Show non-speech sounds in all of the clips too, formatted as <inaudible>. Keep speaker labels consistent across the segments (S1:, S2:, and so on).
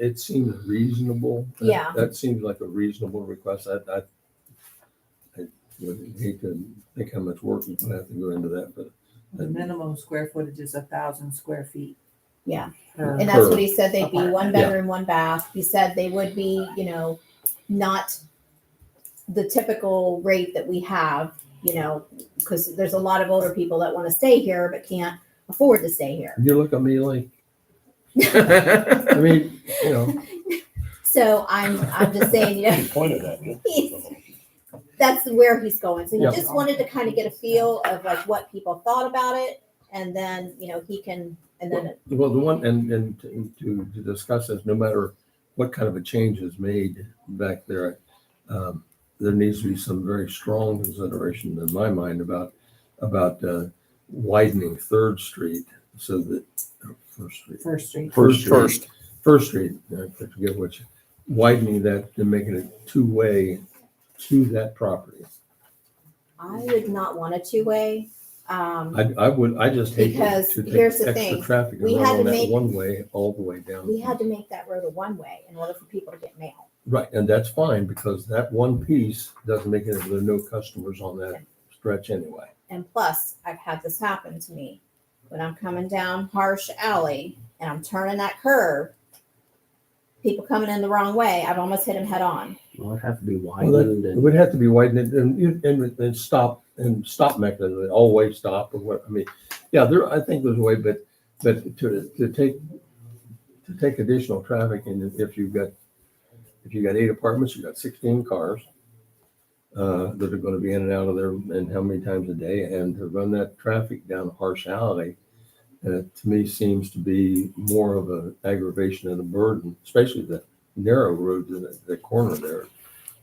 S1: it seems reasonable. That-
S2: Yeah.
S1: That seems like a reasonable request. I, I, I would hate to think how much work would have to go into that, but
S3: The minimum square footage is a thousand square feet.
S2: Yeah.
S3: per-
S2: And that's what
S1: Sure.
S2: he said, they'd be one
S1: Yeah.
S2: bedroom, one bath. He said they would be, you know, not the typical rate that we have, you know, because there's a lot of older people that want to stay here but can't afford to stay here.
S1: you look at me like, I mean, you know,
S2: So I'm, I'm just saying, you know, <laughs>
S4: You pointed at me.
S2: he's, that's where he's going. So he
S1: Yeah.
S2: just wanted to kind of get a feel of like what people thought about it. And then, you know, he can, and then,
S1: well, the one, and, and to, to discuss this, no matter what kind of a change is made back there, um, there needs to be some very strong consideration in my mind about, about uh, widening Third Street so that, or First Street.
S3: First street.
S1: First Street. First Street, I forget which, widening that and making it two-way to that property.
S2: I would not want a two-way. Um,
S1: I, I would, I just hate to-
S2: Because
S1: to take
S2: here's the
S1: extra
S2: thing,
S1: traffic and
S2: we
S1: run
S2: had
S1: on
S2: to
S1: that
S2: make-
S1: one-way all the way down.
S2: we had to make that road a one-way in order for people to get mail.
S1: Right, and that's fine because that one piece doesn't make it, there are no customers on that stretch anyway.
S2: And plus, I've had this happen to me. When I'm coming down Harsh Alley and I'm turning that curve, people coming in the wrong way, I've almost hit them head on.
S5: Well, it'd have to be
S1: Well, that-
S5: widened
S1: It
S5: and
S1: would have to be widened and, and, and- and stop, and stop mechanism, always stop or what, I mean, yeah, there, I think there's a way, but, but to, to take, to take additional traffic and if you've got, if you've got eight apartments, you've got sixteen cars uh, that are gonna be in and out of there and how many times a day and to run that traffic down Harsh Alley, uh, to me seems to be more of an aggravation and a burden, especially the narrow road to the, the corner there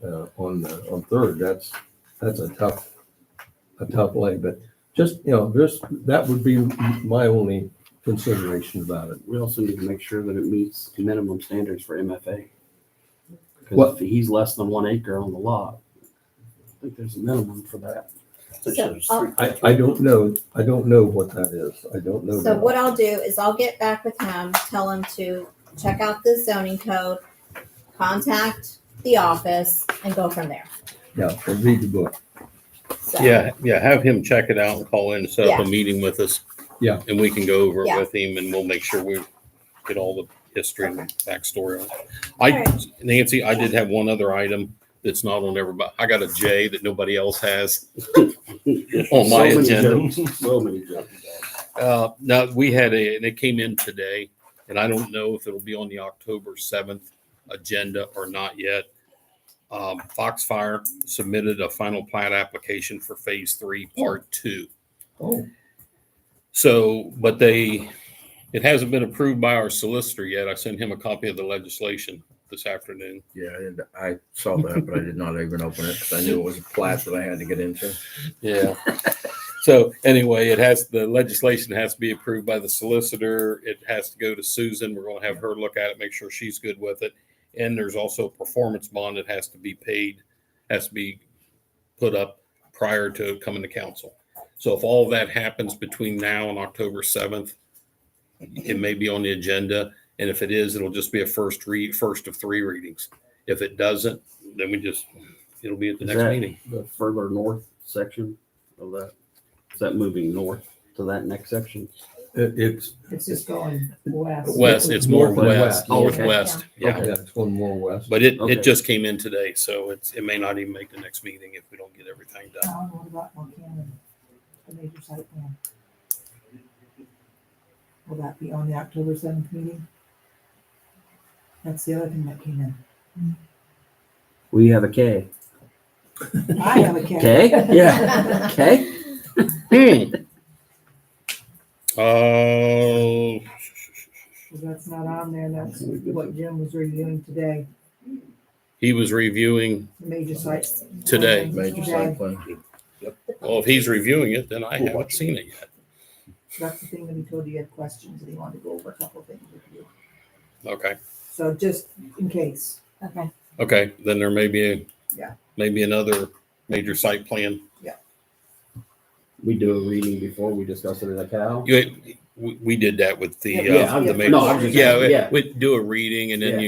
S1: uh, on the, on third, that's, that's a tough, a tough lay, but just, you know, this, that would be my only consideration about it.
S5: we also need to make sure that it meets minimum standards for MFA.
S1: What-
S5: Because if he's less than one acre on the lot, I think there's a minimum for that.
S2: So, I'll-
S1: I, I don't know, I don't know what that is, I don't know.
S2: So
S1: that.
S2: what I'll do is I'll get back with him, tell him to check out the zoning code, contact the office and go from there.
S1: Yeah, and read the book,
S2: So,
S6: Yeah, yeah, have him check it out and call in, set up a meeting with us.
S1: Yeah.
S6: And we can go over it
S2: Yeah.
S6: with him and we'll make sure we get all the history and backstory. on it.
S2: All
S6: I, Nancy, I did have one other item that's not on everybody. I got a J that nobody else
S5: <laughs>
S6: has. On my
S5: So many
S6: agenda.
S5: jokes, So many jokes.
S6: Uh, now, we had a, and it came in today, and I don't know if it'll be on the October seventh agenda or not yet. Um, Foxfire submitted a final plat application for phase three, part two.
S1: oh,
S6: So, but they, it hasn't been approved by our solicitor yet. I sent him a copy of the legislation this afternoon.
S7: Yeah, and I saw that, but I did not even open it because I knew it was a class that I had to get into.
S6: Yeah. So anyway, it has, the legislation has to be approved by the solicitor. It has to go to Susan. We're gonna have her look at it, make sure she's good with it. And there's also a performance bond that has to be paid, has to be put up prior to coming to council. So if all that happens between now and October seventh, it may be on the agenda. And if it is, it'll just be a first read, first of three readings. If it doesn't, then we just, it'll be at the
S5: Is
S6: next
S5: that-
S6: meeting.
S5: The further north section of that, is that moving north to that next section?
S1: it, it's,
S3: It's just going west.
S6: West, it's more
S1: Northwest.
S6: west,
S5: Oh, okay.
S6: northwest,
S1: yeah,
S6: yeah.
S1: it's one more west.
S6: But it,
S5: Okay.
S6: it just came in today, so it's, it may not even make the next meeting if we don't get everything done.
S3: Alan, what about Montana, the major site plan? Will that be on the October seventh meeting? That's the other thing that came
S5: We have a K.
S3: in. I have a cat.
S5: K? Yeah. K? Hmm.
S6: Oh,
S3: <laughs> Cause that's not on there, and that's what Jim was reviewing today,
S6: he was reviewing
S3: the major site.
S6: today.
S7: Major site plan.
S6: Well, if he's reviewing it, then I haven't seen it yet.
S3: That's the thing that he told you he had questions, and he wanted to go over a couple of things with you.
S6: Okay,
S3: So just in case.
S2: Okay.
S6: okay, then there may be, a
S3: Yeah.
S6: maybe another major site plan.
S5: <laughs> We do a reading before we discuss it as a cow?
S6: You, we, we did that with the,
S3: Yeah,
S6: uh, the
S3: yeah.
S6: major,
S5: No, I'm just-
S6: yeah,
S5: yeah.
S6: we- we do a reading and then
S5: Yeah.
S6: you